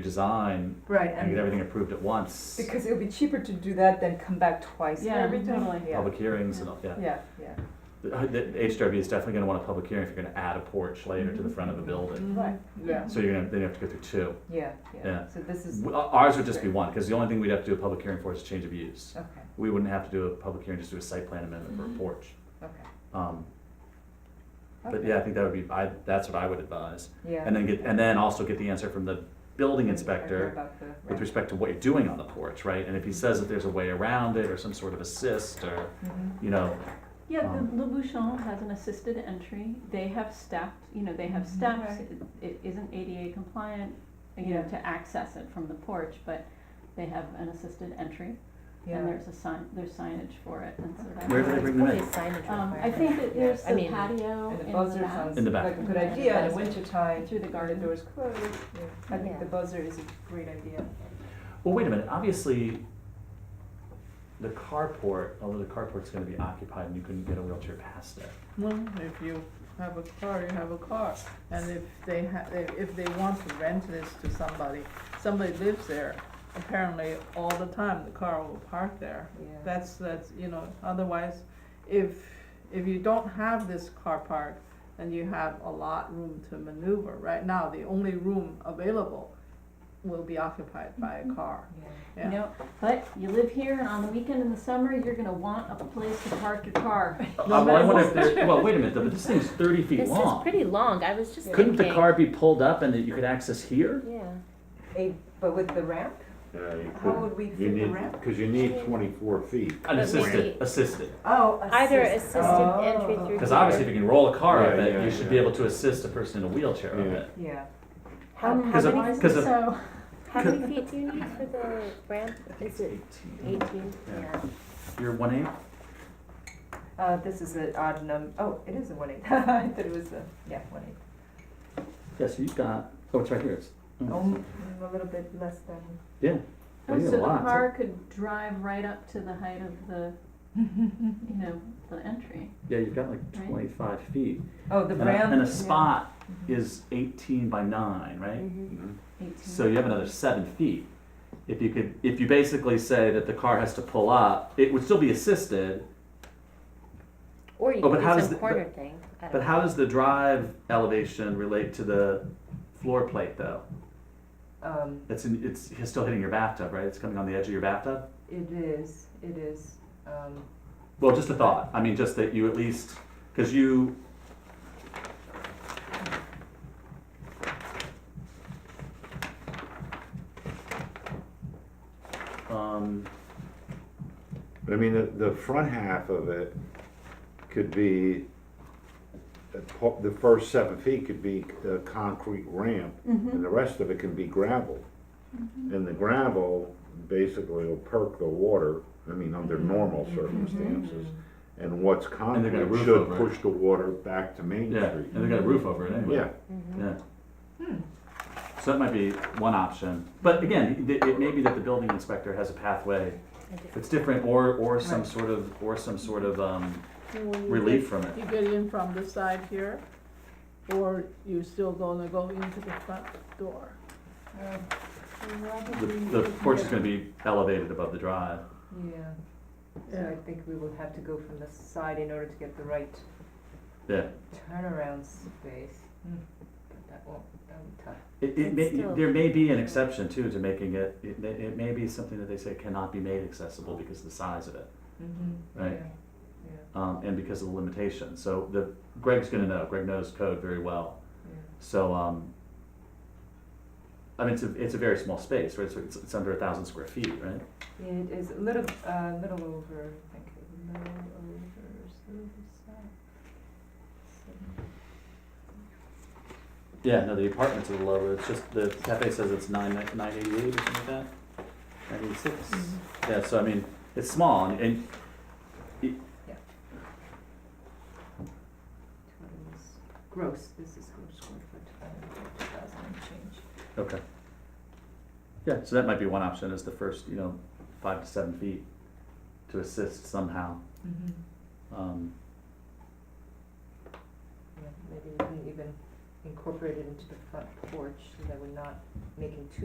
redesign Right, and get and everything approved at once. because it would be cheaper to do that than come back twice for Yeah, everything. totally. Yeah, Public hearings and all, yeah. yeah, yeah, The, uh, the HDRB is definitely gonna want a public hearing if you're gonna add a porch later to the front of a building. right, yeah, So you're gonna, then you have to go through two. yeah, yeah. Yeah. So this is, W- uh, Ours would just be one, because the only thing we'd have to do a public hearing for is change of use. okay, We wouldn't have to do a public hearing, just do a site plan amendment for Mm-hmm. a porch. okay. Um, But okay, yeah, I think that would be, I, that's what I would advise. Yeah. And then get, and then also get the answer from the building I inspector remember about the- with right. respect to what you're doing on the porch, right? And if he says that there's a way around it or some sort of assist or, Mm-hmm. Mhm. you know, Yeah, Um, the Le Bouchon has an assisted entry, they have stacked, you know, they have Mhm. steps, Right. it, it isn't ADA compliant, you know, Yeah. to access it from the porch, but they have an assisted entry, and Yeah, there's a sign, there's signage for it, and so that's. Where do they bring them in? Um, I think that there's I the mean, patio and the in buzzer the back, sounds In the back. like a good Yeah. idea in the wintertime, through the the garden. doors closed, yeah. I think Yeah. the buzzer is a great idea. well, wait a minute, obviously, the carport, although the carport's gonna be occupied and you couldn't get a wheelchair past it. Well, if you have a car, you have a car, and if they ha- they- if they want to rent this to somebody, somebody lives there, apparently all the time, the car will park there. Yeah. That's, that's, you know, otherwise, if, if you don't have this car park, then you have a lot room to maneuver. Right now, the only room available will be occupied by a car, Yeah. you know, but you live here, and on the weekend in the summer, you're gonna want a place to park your car. Uh, well, I wonder if there, well, wait a minute, though, but this thing's thirty feet This is long. pretty long, I was just thinking. Couldn't the car be pulled up and that you could access here? Yeah, A, but with the ramp, Yeah, you how could, would we you fit the need, ramp? because you need twenty-four feet. Unassisted, maybe- assisted. Oh, either assisted Oh. entry through. Because obviously, if you can roll a car up Yeah, it, yeah, you should yeah. be able to assist a person in a wheelchair up Yeah. it. Yeah. How, Um, how Because of- many, because of- So, how many feet do you need for the ramp? Is it Eighteen. eighteen? Yeah. You're one eight. Uh, this is an odd num, oh, it is a one eight, I thought it was a, yeah, one eight. Yeah, so you've got. Oh, it's right here. It's, mm. Um, a little bit less than. Yeah. oh, Well, you so have the a lot. car could drive right up to the height of the, you know, the entry. Yeah, you've got like Right. 25 feet. Oh, the And a, and brown. a spot is 18 by 9, right? Mhm. Eighteen. So you have another 7 feet. If you could, if you basically say that the car has to pull up, it would still be assisted, Or you Oh, but could how do does some the- corner thing, I But don't know. how does the drive elevation relate to the floor plate though? Um, It's in, it's it's still hitting your bathtub, right? It's coming on the edge of your bathtub. it is, it is, um, Well, just a thought. I mean, just that you at least because you. Um, But I mean, the, the front half of it could be, the po- the first seven feet could be a concrete ramp, Mm-hmm. and the rest of it can be gravel. And the gravel basically will perk the water, I mean, under Mm-hmm. normal circumstances. And what's they're gonna concrete roof should over it. push the water back to Main yeah, Street. and they got a roof over it anyway. Yeah, Yeah. So that might be one option, but again, it, it may be that the building inspector has a pathway I did- It's different, or, or some Right. sort of, or some sort of, um, You know, when you relief from it. You get in from the side here, or you still gonna go into the front door? uh, The, the porch is gonna be elevated above the drive. yeah. So I think we will have to go from the side in order to get the right Yeah, turnaround space. Hmm, But that won't, that'll be tough. it, it may, It's still- there may be an exception too to making it, it, may- it may be something that they say cannot be made accessible because of the size of it, Mm-hmm. Right. um, and because of the limitation, so the, Greg's gonna know, Greg knows code very well, so, um, I mean, it's a, it's a very small space, right, so it's, it's under a thousand square feet, right? It is a little, uh, little over, I think, a little over, so uh, Yeah, no, the apartments are a little lower, it's just, the cafe says it's nine, nine eighty-eight or something like that, ninety-six. Yeah, so I mean, it's small and, and Totals, gross, this is gross square foot, two thousand and change. okay. Yeah, so that might be one option is the first, you know, five to seven feet to assist somehow. Mm-hmm. Um, Yeah, maybe we can even incorporate it into the front porch, so that we're not making two